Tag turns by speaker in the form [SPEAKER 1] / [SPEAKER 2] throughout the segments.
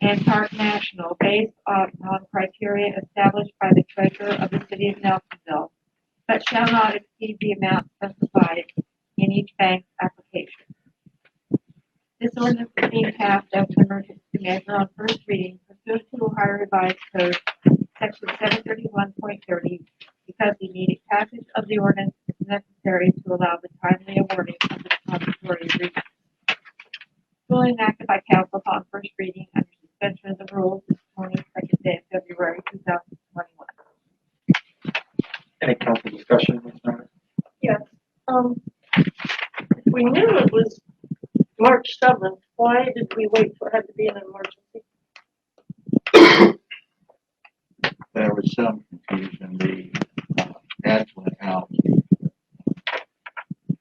[SPEAKER 1] and Park National based upon criteria established by the treasurer of the city of Nelsonville, but shall not exceed the amount specified in each bank's application. This ordinance is being passed as an emergency measure on first reading pursuant to Ohio Revised Code, section seven thirty-one point thirty, because the immediate passage of the ordinance is necessary to allow the timely awarding of the depository refund duly enacted by council upon first reading under suspension of the rules this morning, second day of February two thousand twenty-one.
[SPEAKER 2] Any council discussion on this matter?
[SPEAKER 3] Yes, um, if we knew it was March seventh, why did we wait for it had to be an emergency?
[SPEAKER 4] there was some confusion, the uh, ads went out.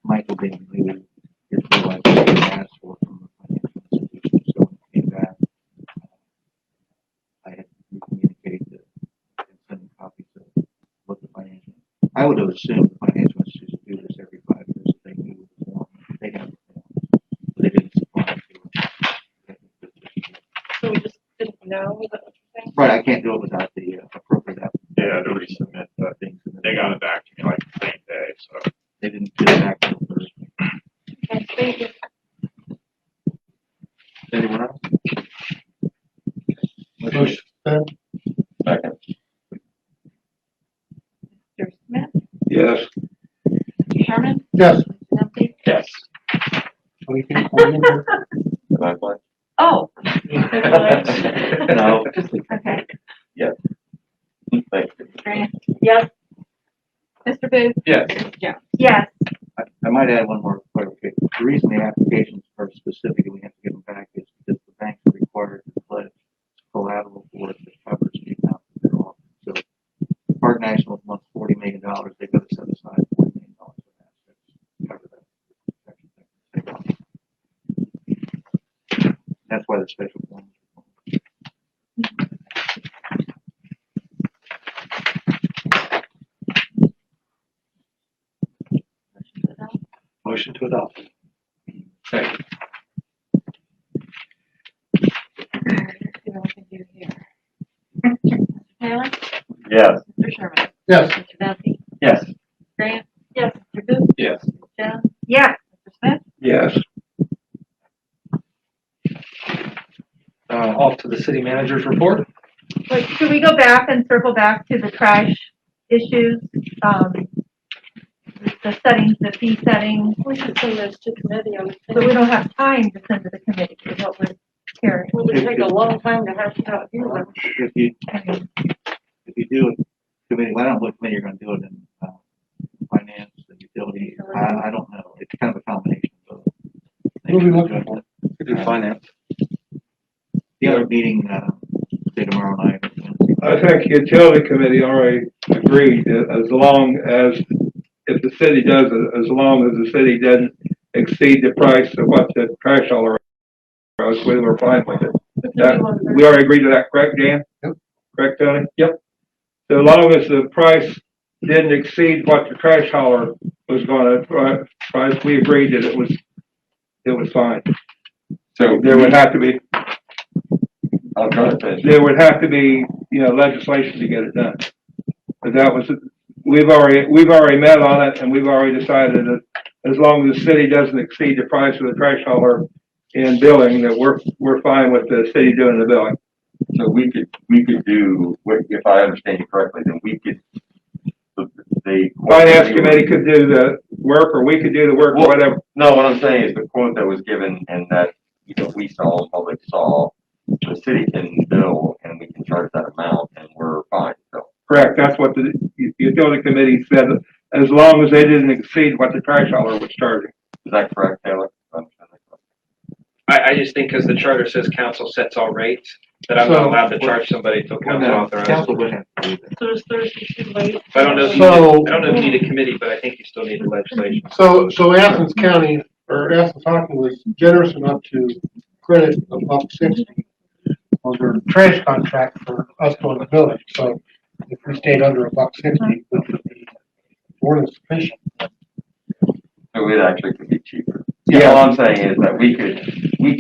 [SPEAKER 4] Michael didn't leave, his realized he had asked for it from the financial institution, so when he came back, uh, I had communicated that, and sent copies of what the financial, I would have assumed the financial institutions do this every five years, if they knew the form, they have the form, but they didn't supply it to us.
[SPEAKER 3] So we just didn't know, is that what you're saying?
[SPEAKER 4] Right, I can't do it without the uh, appropriate app-
[SPEAKER 5] Yeah, to resubmit, but
[SPEAKER 4] things. and
[SPEAKER 5] they got it back to me like the same day, so.
[SPEAKER 4] They didn't get it back till Thursday.
[SPEAKER 3] Okay, thank you.
[SPEAKER 4] Anyone else?
[SPEAKER 6] Motion to
[SPEAKER 2] Second.
[SPEAKER 1] Mr. Smith,
[SPEAKER 5] Yes.
[SPEAKER 1] Mr. Sherman,
[SPEAKER 6] Yes.
[SPEAKER 1] Mr. Duffy,
[SPEAKER 2] Yes.
[SPEAKER 6] We can call in here.
[SPEAKER 2] And I'm like,
[SPEAKER 1] oh,
[SPEAKER 2] No,
[SPEAKER 1] okay,
[SPEAKER 2] thank you.
[SPEAKER 1] Grant,
[SPEAKER 3] Yes,
[SPEAKER 1] Mr. Booth,
[SPEAKER 2] Yes.
[SPEAKER 1] Mr. Jones.
[SPEAKER 3] yes,
[SPEAKER 4] I, I might add one more clarification. The reason the applications are specific and we have to give them back is because the banks are required to pledge collateral for it that covers the amount that they're offering. So Park National wants forty million dollars, they've got to set aside forty million dollars for that. to cover that. That's why the special one.
[SPEAKER 6] Motion to adopt.
[SPEAKER 2] Second.
[SPEAKER 1] Let's see what we can do here. Mr. Taylor,
[SPEAKER 2] Yes.
[SPEAKER 1] Mr. Sherman,
[SPEAKER 6] Yes.
[SPEAKER 1] Mr. Duffy,
[SPEAKER 2] Yes.
[SPEAKER 1] Grant,
[SPEAKER 3] yes,
[SPEAKER 1] Mr. Booth,
[SPEAKER 2] Yes.
[SPEAKER 1] Mr. Jones,
[SPEAKER 3] yes.
[SPEAKER 1] Mr. Smith,
[SPEAKER 2] Yes.
[SPEAKER 6] Uh, off to the city manager's report.
[SPEAKER 7] Wait, should we go back and circle back to the trash issues? Um, the settings, the fee settings,
[SPEAKER 3] We should send those to committee, I would
[SPEAKER 7] but we
[SPEAKER 3] think.
[SPEAKER 7] don't have time to send to the committee, is what we're hearing.
[SPEAKER 3] It would take a long time to have to out here.
[SPEAKER 4] If you
[SPEAKER 7] I mean,
[SPEAKER 4] if you do it, committee, well, I don't know what committee you're gonna do it in, uh, finance, the utility, I, I don't know, it's kind of a combination of. both.
[SPEAKER 6] We'll be looking for. Could
[SPEAKER 4] do
[SPEAKER 6] finance.
[SPEAKER 4] The other meeting, uh, say tomorrow night.
[SPEAKER 8] I think utility committee already agreed that as long as, if the city does it, as long as the city doesn't exceed the price of what the trash all around was, we were fine with it. That- we already agreed to that, correct, Dan?
[SPEAKER 6] Yep.
[SPEAKER 8] Correct, Tony? Yep. So as long as the price didn't exceed what the trash hauler was gonna, pri- price, we agreed that it was, it was fine.
[SPEAKER 2] So
[SPEAKER 8] There would have to be,
[SPEAKER 2] I'll try to finish.
[SPEAKER 8] there would have to be, you know, legislation to get it done. But that was, we've already, we've already met on it and we've already decided that as long as the city doesn't exceed the price of the trash hauler in billing, that we're, we're fine with the city doing the billing.
[SPEAKER 9] So we could, we could do, if I understand you correctly, then we could, the, the.
[SPEAKER 8] Finance committee could do the work or we could do the work or whatever.
[SPEAKER 9] No, what I'm saying is the quote that was given and that, you know, we saw, the public saw, the city can bill and we can charge that amount and we're fine, so.
[SPEAKER 8] Correct, that's what the u- utility committee said, as long as they didn't exceed what the trash hauler was charging.
[SPEAKER 9] Is that correct, Taylor?
[SPEAKER 10] I, I just think because the charter says council sets all rates, that I'm not
[SPEAKER 6] So-
[SPEAKER 10] allowed to charge somebody until council authorizes.
[SPEAKER 4] Council would have to do that.
[SPEAKER 3] So is Thursday too late?
[SPEAKER 10] I don't know if you,
[SPEAKER 6] So-
[SPEAKER 10] I don't know if you need a committee, but I think you still need the legislation.
[SPEAKER 6] So, so Athens County, or Athens Hockey was generous enough to credit a buck sixty on their trash contract for us going to village. So if we stayed under a buck sixty, which would be more than sufficient.
[SPEAKER 9] So it actually could be cheaper. All I'm saying is that we could,